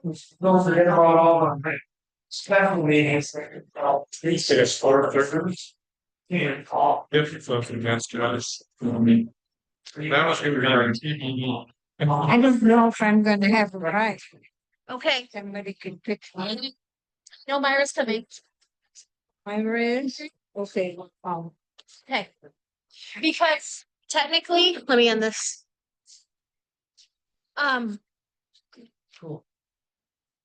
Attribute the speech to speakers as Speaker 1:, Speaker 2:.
Speaker 1: don't forget about all the special meetings, uh, these are sport workers. Can't call.
Speaker 2: If fucking that's us, I mean, that was gonna be our
Speaker 3: I don't know if I'm gonna have a ride.
Speaker 4: Okay,
Speaker 3: Somebody can pick me.
Speaker 4: no, Myra's coming.
Speaker 3: My ride. Okay, um,
Speaker 4: Okay. Because technically, let me end this. Um.
Speaker 3: cool.